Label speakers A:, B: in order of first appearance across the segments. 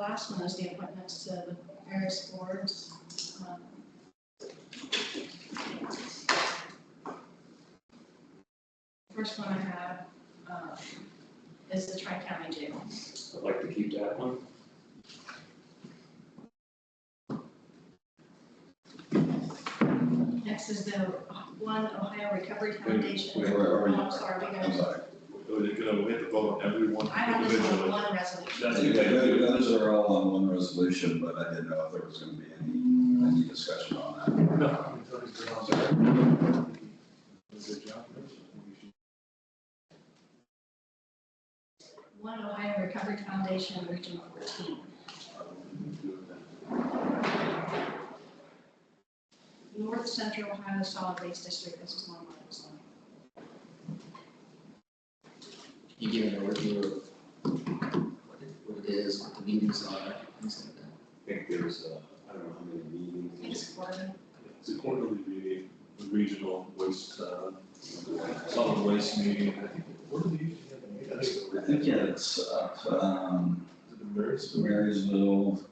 A: last one was Uh, the appointments to the various boards. Um, First one I have, um, is the tri-county jail.
B: I'd like to keep that one.
A: Next is the One Ohio Recovery Foundation.
C: Wait, where are you?
A: Oh, I'm sorry, we
C: I'm
A: got,
C: sorry.
D: So they're gonna hit the vote on every one
A: I have this
D: individually.
A: on one resolution.
D: That's
C: Okay,
D: okay.
C: tho- those are all on one resolution, but I didn't know if there was gonna be any, any discussion on
D: No.
A: One Ohio Recovery Foundation, Region 14. North Central Ohio Solid Waste District, this is one where it was on.
E: you give an overview of what it, what it is, what the meetings are, things like that.
F: I think there's, uh, I don't know how many meetings.
A: I think it's quarterly.
D: It's a quarterly meeting, the regional waste, uh, solid waste meeting. I think- Where do they usually have the meeting? I think it's
C: that. I think it's up, um,
D: the Marys.
C: Marysville,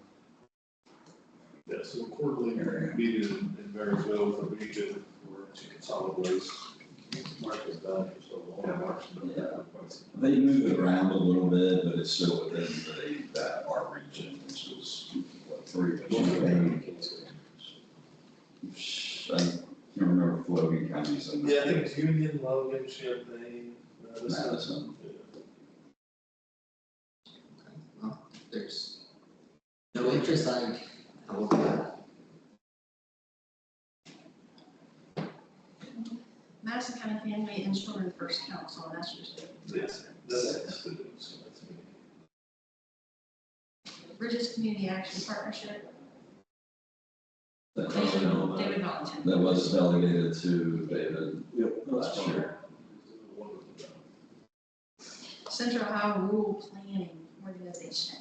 D: Yeah, so a quarterly
C: Area.
D: meeting in- in Marysville for region for chicken solid waste. Mark is done for so long.
F: Yeah, Mark's
C: yeah. They move it around a little bit, but it's still within the, that our region, which was, what, three, but you know, I can't remember if Logan County's in.
D: Yeah, I think it's Union, Logan, Champaign, Madison.
C: Madison.
D: Yeah.
E: Okay, Well, if there's no interest, I, I will do that.
A: Madison County Family and Children First Council, and that's usually.
D: Yes, that's, that's, so that's me.
A: Bridges Community Action Partnership,
C: That
A: they
C: was,
A: would they would volunteer.
C: that was delegated to David last year.
A: Central Ohio Rural Planning Organization.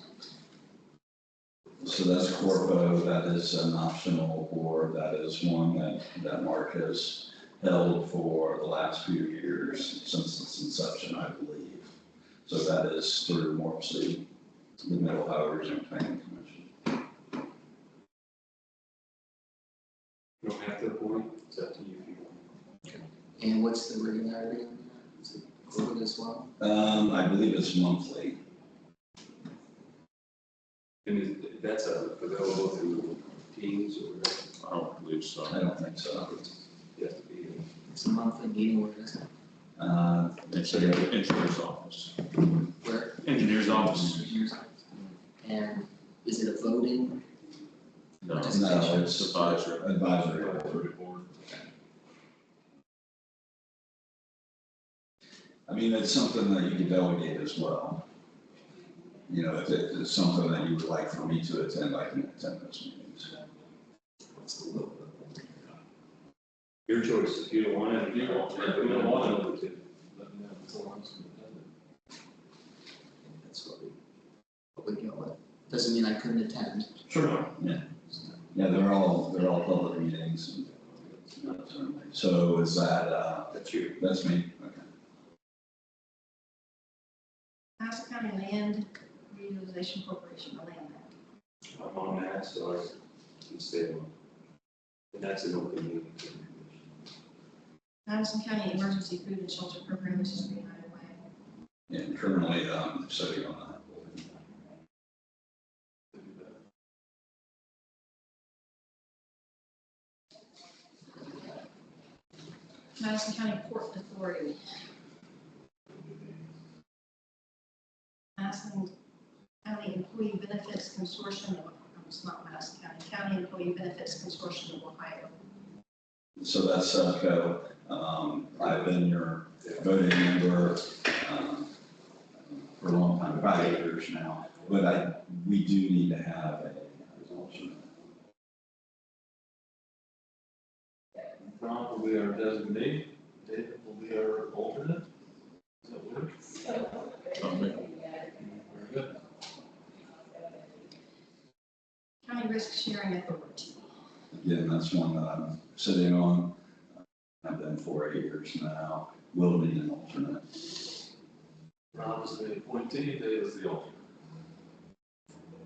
C: So that's Corpo, that is an optional board, that is one that, that Mark has held for the last few years, since its inception, I believe. So that is through Morpsey, the Middle Ohio Regional Planning Commission.
F: You don't have to appoint, it's up to you if you want.
E: And what's the regularity on that? Is it quarterly as well?
C: Um, I believe it's monthly,
F: And is- that's uh, available through Teams or it
C: Oh, I don't believe so. I don't think so.
F: has to be.
E: It's a monthly meeting, where is it?
C: Uh,
G: It's in the engineer's office.
E: Where?
G: Engineer's office.
E: And is it a voting?
G: No,
C: No,
G: It's
C: it's
G: advisory.
C: advisory board. I mean, it's something that you can delegate as well. You know, if it- if it's something that you would like for me to attend, I can attend those meetings.
E: What's the vote?
F: Your choice, if you don't want it,
D: You don't, you don't want to. Let me know if it's on.
E: That's what we, what we go with. Doesn't mean I couldn't attend.
C: Sure. Yeah, yeah, they're all, they're all public meetings. and- So is that, uh,
F: That's you.
C: that's me, okay.
A: Madison County Land Reutilization Corporation, the land bank.
F: I'm on that, so I can stay on. And that's an open meeting.
A: Madison County Emergency Food and Shelter Program, this is Green Highway.
C: And currently, um, sitting on that board.
A: Madison County Port Authority. Madison County Employee Benefits Consortium, of- it's not Madison County, County Employee Benefits Consortium of Ohio.
C: So that's Sevco. Um, I've been your voting member, um, for a long time, about eight years now. But I, we do need to have a resolution.
D: Ron will be our designee, David will be our alternate. Does that work? Very good.
A: County Risk Sharing Authority.
C: Again, that's one that I'm sitting on. I've been for eight years now. Will need an alternate.
D: Ron is the appointee, Dave is the alternate.